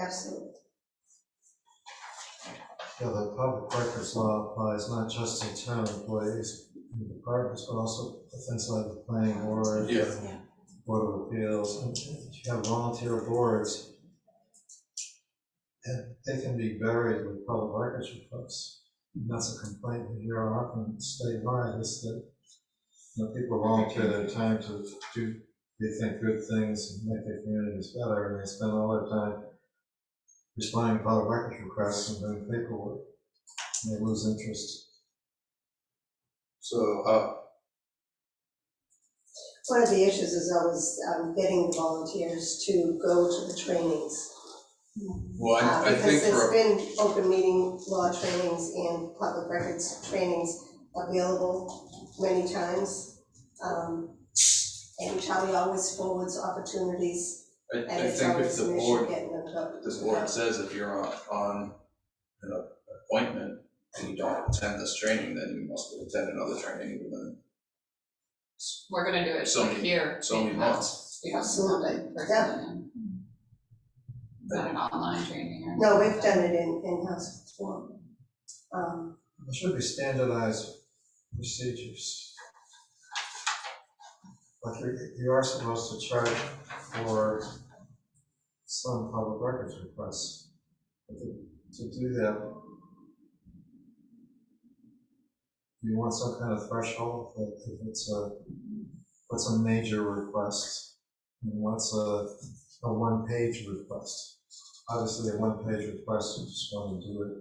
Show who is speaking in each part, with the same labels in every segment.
Speaker 1: Absolutely.
Speaker 2: Yeah, the public records law applies not just to town employees and departments, but also things like the planning board.
Speaker 3: Yeah.
Speaker 2: Board of Appeals, and if you have volunteer boards, and they can be buried with public records requests. And that's a complaint we hear often statewide, is that, you know, people volunteer their time to do, they think good things and make their communities better, and they spend all their time responding to public records requests and doing paperwork, and they lose interest.
Speaker 3: So, uh,
Speaker 1: One of the issues is always um, getting the volunteers to go to the trainings.
Speaker 3: well,
Speaker 1: uh,
Speaker 3: I, I think
Speaker 1: Because there's
Speaker 3: for,
Speaker 1: been open meeting law trainings and public records trainings available many times. um, And Charlie always forwards opportunities,
Speaker 3: I,
Speaker 1: and
Speaker 3: I
Speaker 1: it's
Speaker 3: think if
Speaker 1: always
Speaker 3: the
Speaker 1: an issue
Speaker 3: board,
Speaker 1: getting them to.
Speaker 3: this board says if you're on, on an appointment and you don't attend this training, then you must attend another training within
Speaker 4: We're gonna do
Speaker 3: So
Speaker 4: it
Speaker 3: many-
Speaker 4: here.
Speaker 3: so many months.
Speaker 4: Yeah.
Speaker 1: Absolutely, yeah.
Speaker 4: Not an online training or.
Speaker 1: No, we've done it in, in-house before. Um,
Speaker 2: There should be standardized procedures. Like you, you are supposed to charge for some public records requests. But To to do that, you want some kind of threshold, like if it's a, what's a major request? And what's a, a one-page request? Obviously, a one-page request, you just want to do it,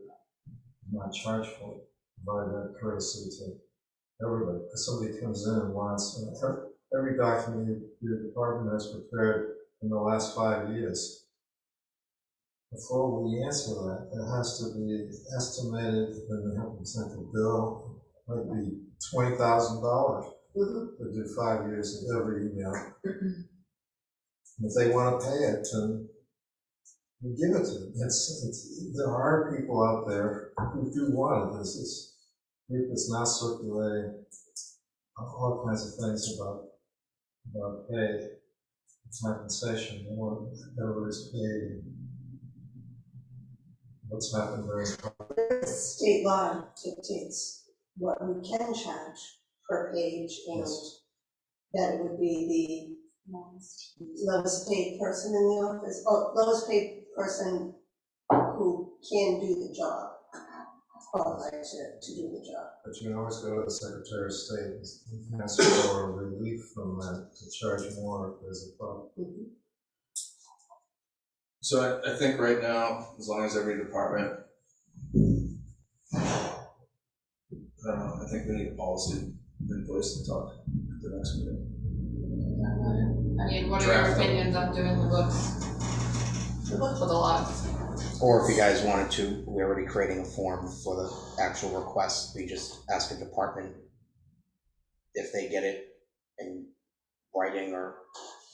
Speaker 2: not charge for it provide that courtesy to everybody. If somebody comes in and wants, and ev- every document your- your department has prepared in the last five years, before we answer that, it has to be estimated, then they have to send a bill, might be twenty thousand dollars
Speaker 1: mhm.
Speaker 2: to do five years of every email. And If they wanna pay it, then we give it to them. It's, it's, there are people out there who do want it. There's this group that's now circulating uh, all kinds of things about, about pay, compensation, they want everybody's paid and what's happened there.
Speaker 1: state law dictates what we can charge per page and
Speaker 2: Yes.
Speaker 1: that it would be the lowest paid person in the office, or lowest paid person who can do the job, qualified to, to do the job.
Speaker 2: But you can always go to the Secretary of State and ask for relief from that, to charge more if there's a problem.
Speaker 1: Mm-hmm.
Speaker 3: so I, I think right now, as long as every department, I don't know, I think we need a policy in place to talk at the next meeting.
Speaker 4: I mean, what are your
Speaker 3: Draft them.
Speaker 4: opinions on doing the books? The books with the lots.
Speaker 5: Or if you guys wanted to, we're already creating a form for the actual request, we just ask a department if they get it in writing or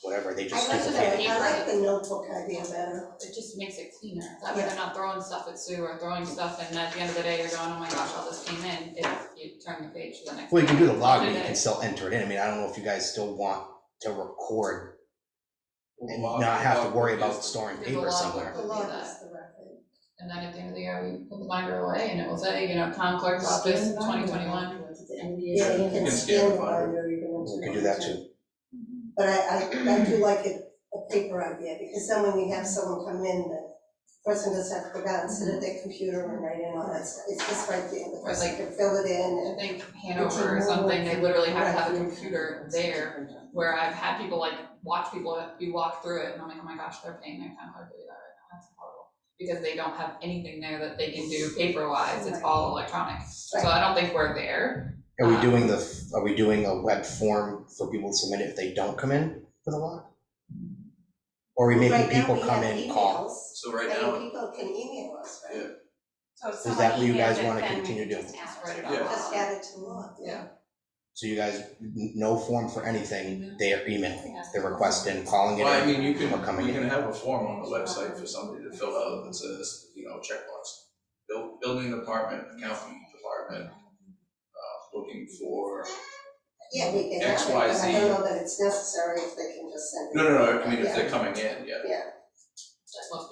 Speaker 5: whatever, they just
Speaker 1: I
Speaker 5: stick
Speaker 1: like
Speaker 5: it
Speaker 4: that.
Speaker 1: the,
Speaker 5: in.
Speaker 1: I like the notebook idea better.
Speaker 4: It just makes it cleaner. That way they're not throwing stuff at Sue or throwing stuff and at the end of the day, you're going, oh my gosh, all this came in. If you turn the page to the next.
Speaker 5: Well, you can do the
Speaker 4: page.
Speaker 5: log, but you can still enter it in, I mean, I don't know if you guys still want to record and not have to worry about storing
Speaker 4: There's a
Speaker 5: paper
Speaker 4: log.
Speaker 5: somewhere.
Speaker 1: The law is the record.
Speaker 4: And then at the end of the year, we put the binder away and it will say, you know, town clerk's office, twenty twenty-one.
Speaker 1: Yeah, you can
Speaker 3: can
Speaker 1: scan
Speaker 3: scan
Speaker 1: the
Speaker 3: the binder.
Speaker 1: binder, you can.
Speaker 5: We can do that too,
Speaker 1: But I, I, I do like it, a paper idea, because then when you have someone come in, the person doesn't have to go down and sit at their computer and write in all that stuff, it's just right there, the
Speaker 4: Or
Speaker 1: person
Speaker 4: like-
Speaker 1: can fill it
Speaker 4: I
Speaker 1: in
Speaker 4: think Hanover or something, they literally have to have a computer there where I've had people like watch people, you walk through it and I'm like, oh my gosh, they're paying their town clerk to do that right now, that's horrible. Because they don't have anything there that they can do paper wise, it's all electronic, so I don't think we're there.
Speaker 5: are we doing the, are we doing a web form for people to submit if they don't come in for the log? Or are we
Speaker 1: and.
Speaker 5: making people come in, call?
Speaker 3: So right
Speaker 1: Right now,
Speaker 3: now,
Speaker 1: we have emails, and people can email us, right?
Speaker 6: So if
Speaker 5: Is that
Speaker 6: someone
Speaker 5: what you guys
Speaker 6: emails it,
Speaker 5: wanna
Speaker 6: then we
Speaker 5: continue
Speaker 6: can
Speaker 5: doing?
Speaker 6: just ask
Speaker 4: Write it
Speaker 6: them.
Speaker 4: Yeah. off.
Speaker 1: Just add it to law, yeah.
Speaker 5: So you guys, n- no form for anything, they are emailing, they're requesting, calling it
Speaker 3: well, I
Speaker 5: in.
Speaker 3: mean, you can,
Speaker 5: We're coming
Speaker 3: you
Speaker 5: in.
Speaker 3: can have a form on the website for somebody to fill out that says, you know, checkbox. Buil- Building department, accounting department, uh, looking for,
Speaker 1: Yeah, we can
Speaker 3: X,
Speaker 1: have it,
Speaker 3: Y,
Speaker 1: but I
Speaker 3: Z.
Speaker 1: don't know that it's necessary if they can just send it.
Speaker 3: no, no, no, I mean, if they're coming in, yeah.
Speaker 1: Yeah.
Speaker 4: That's most